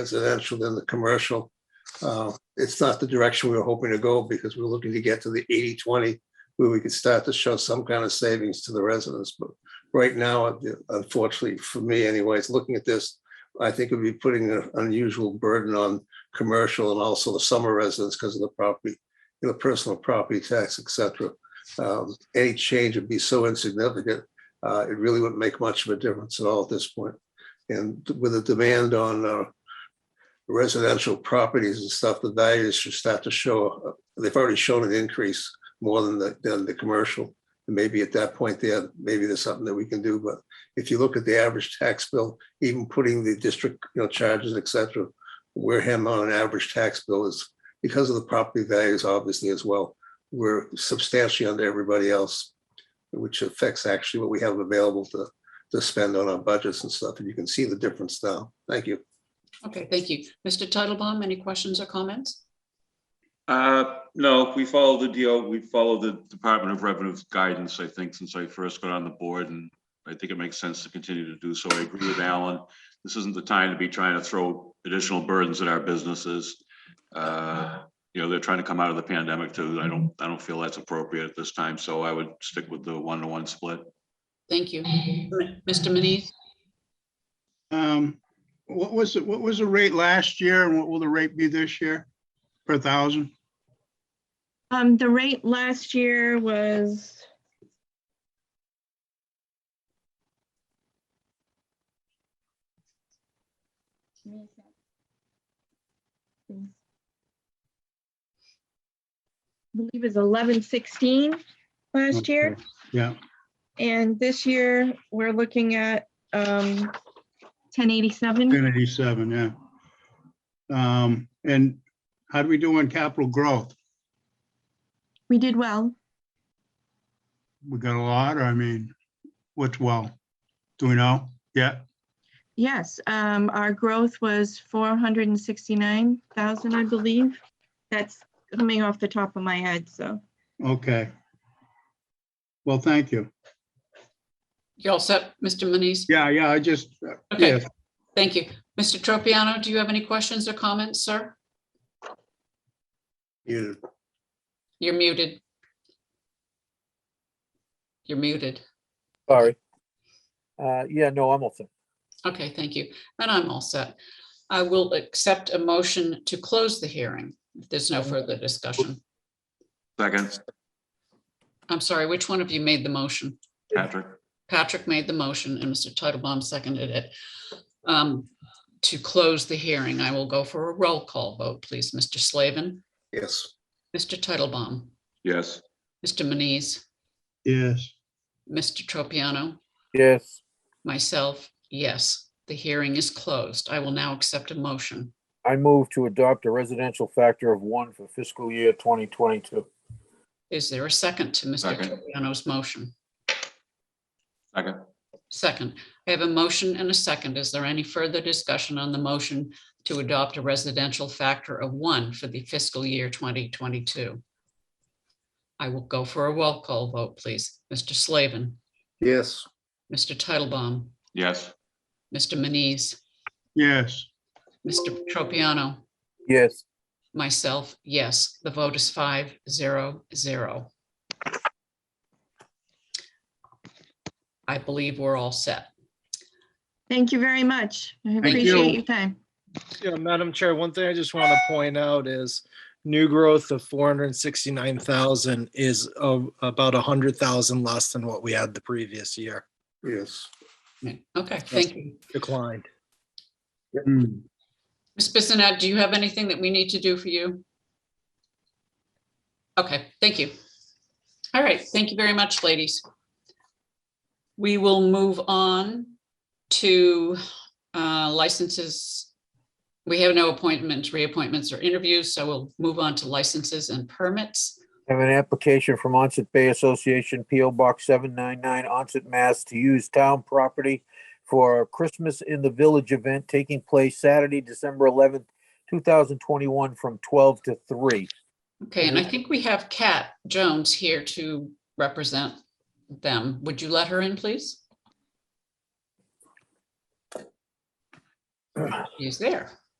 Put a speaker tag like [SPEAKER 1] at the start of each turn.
[SPEAKER 1] residential than the commercial. Uh, It's not the direction we were hoping to go because we're looking to get to the 80-20 where we could start to show some kind of savings to the residents. But right now, uh, unfortunately, for me anyways, looking at this, I think it'd be putting an unusual burden on commercial and also the summer residents because of the property, you know, personal property tax, et cetera. Um, Any change would be so insignificant, uh, it really wouldn't make much of a difference at all at this point. And with a demand on uh, residential properties and stuff, the values should start to show, they've already shown an increase more than the, than the commercial. And Maybe at that point there, maybe there's something that we can do, but if you look at the average tax bill, even putting the district, you know, charges, et cetera, Wareham on an average tax bill is, because of the property values, obviously as well, we're substantially under everybody else, which affects actually what we have available to, to spend on our budgets and stuff, and you can see the difference now. Thank you.
[SPEAKER 2] Okay, thank you. Mr. Titlebaum, any questions or comments?
[SPEAKER 3] Uh, no, we follow the deal, we follow the Department of Revenue's guidance, I think, since I first got on the board, and I think it makes sense to continue to do so. I agree with Alan. This isn't the time to be trying to throw additional burdens at our businesses. Uh, you know, they're trying to come out of the pandemic too. I don't, I don't feel that's appropriate at this time, so I would stick with the one-to-one split.
[SPEAKER 2] Thank you. M- Mr. Manise,
[SPEAKER 4] Um, what was, it? what was the rate last year and what will the rate be this year per thousand?
[SPEAKER 5] Um, the rate last year was I believe is eleven sixteen last year,
[SPEAKER 4] Okay, Yeah,
[SPEAKER 5] and this year we're looking at, um, ten eighty-seven.
[SPEAKER 4] ten eighty-seven, yeah. Um, and how do we do on capital growth?
[SPEAKER 5] We did well.
[SPEAKER 4] We got a lot, or I mean, what's well? Do we know? Yeah,
[SPEAKER 5] Yes, um, our growth was four hundred and sixty-nine thousand, I believe. That's coming off the top of my head, so.
[SPEAKER 4] okay. Well, thank you.
[SPEAKER 2] you all set, Mr. Manise?
[SPEAKER 4] Yeah, yeah, I just, uh,
[SPEAKER 2] Okay,
[SPEAKER 4] yes,
[SPEAKER 2] thank you. Mr. Tropiano, do you have any questions or comments, sir?
[SPEAKER 1] You
[SPEAKER 2] You're muted. You're muted.
[SPEAKER 6] Sorry. Uh, yeah, no, I'm all set.
[SPEAKER 2] Okay, thank you. And I'm all set. I will accept a motion to close the hearing if there's no further discussion.
[SPEAKER 3] Second,
[SPEAKER 2] I'm sorry, which one of you made the motion?
[SPEAKER 3] Patrick?
[SPEAKER 2] Patrick made the motion and Mr. Titlebaum seconded it. um, To close the hearing, I will go for a roll call vote, please. Mr. Slavin,
[SPEAKER 1] yes,
[SPEAKER 2] Mr. Titlebaum,
[SPEAKER 3] Yes,
[SPEAKER 2] Mr. Manise,
[SPEAKER 4] yes,
[SPEAKER 2] Mr. Tropiano,
[SPEAKER 6] Yes,
[SPEAKER 2] myself, yes, the hearing is closed. I will now accept a motion.
[SPEAKER 6] I move to adopt a residential factor of one for fiscal year twenty twenty-two.
[SPEAKER 2] Is there a second to Mr.
[SPEAKER 3] Second.
[SPEAKER 2] Tropiano's motion?
[SPEAKER 3] Second.
[SPEAKER 2] Second, I have a motion and a second. Is there any further discussion on the motion to adopt a residential factor of one for the fiscal year 2022? I will go for a roll call vote, please. Mr. Slavin,
[SPEAKER 1] yes,
[SPEAKER 2] Mr. Titlebaum,
[SPEAKER 3] yes,
[SPEAKER 2] Mr. Manise,
[SPEAKER 4] yes,
[SPEAKER 2] Mr. Tropiano,
[SPEAKER 6] Yes,
[SPEAKER 2] myself, yes. The vote is five zero zero. I believe we're all set.
[SPEAKER 5] Thank you very much. I
[SPEAKER 4] you.
[SPEAKER 5] appreciate your time.
[SPEAKER 7] Yeah, Madam Chair, one thing I just want to point out is new growth of four hundred and sixty-nine thousand is uh, about a hundred thousand less than what we had the previous year
[SPEAKER 1] yes.
[SPEAKER 2] Okay, thank you.
[SPEAKER 7] declined.
[SPEAKER 4] Hmm,
[SPEAKER 2] Ms. Bissonette, do you have anything that we need to do for you? Okay, thank you. All right, thank you very much, ladies. We will move on to uh, licenses. We have no appointments, reappointments, or interviews, so we'll move on to licenses and permits.
[SPEAKER 6] have an application from Onset Bay Association, PO Box seven nine nine, Onset, Mass. To use town property for a Christmas in the Village event taking place Saturday, December eleventh, two thousand twenty-one, from twelve to three.
[SPEAKER 2] Okay, and I think we have Kat Jones here to represent them. Would you let her in, please? She's there.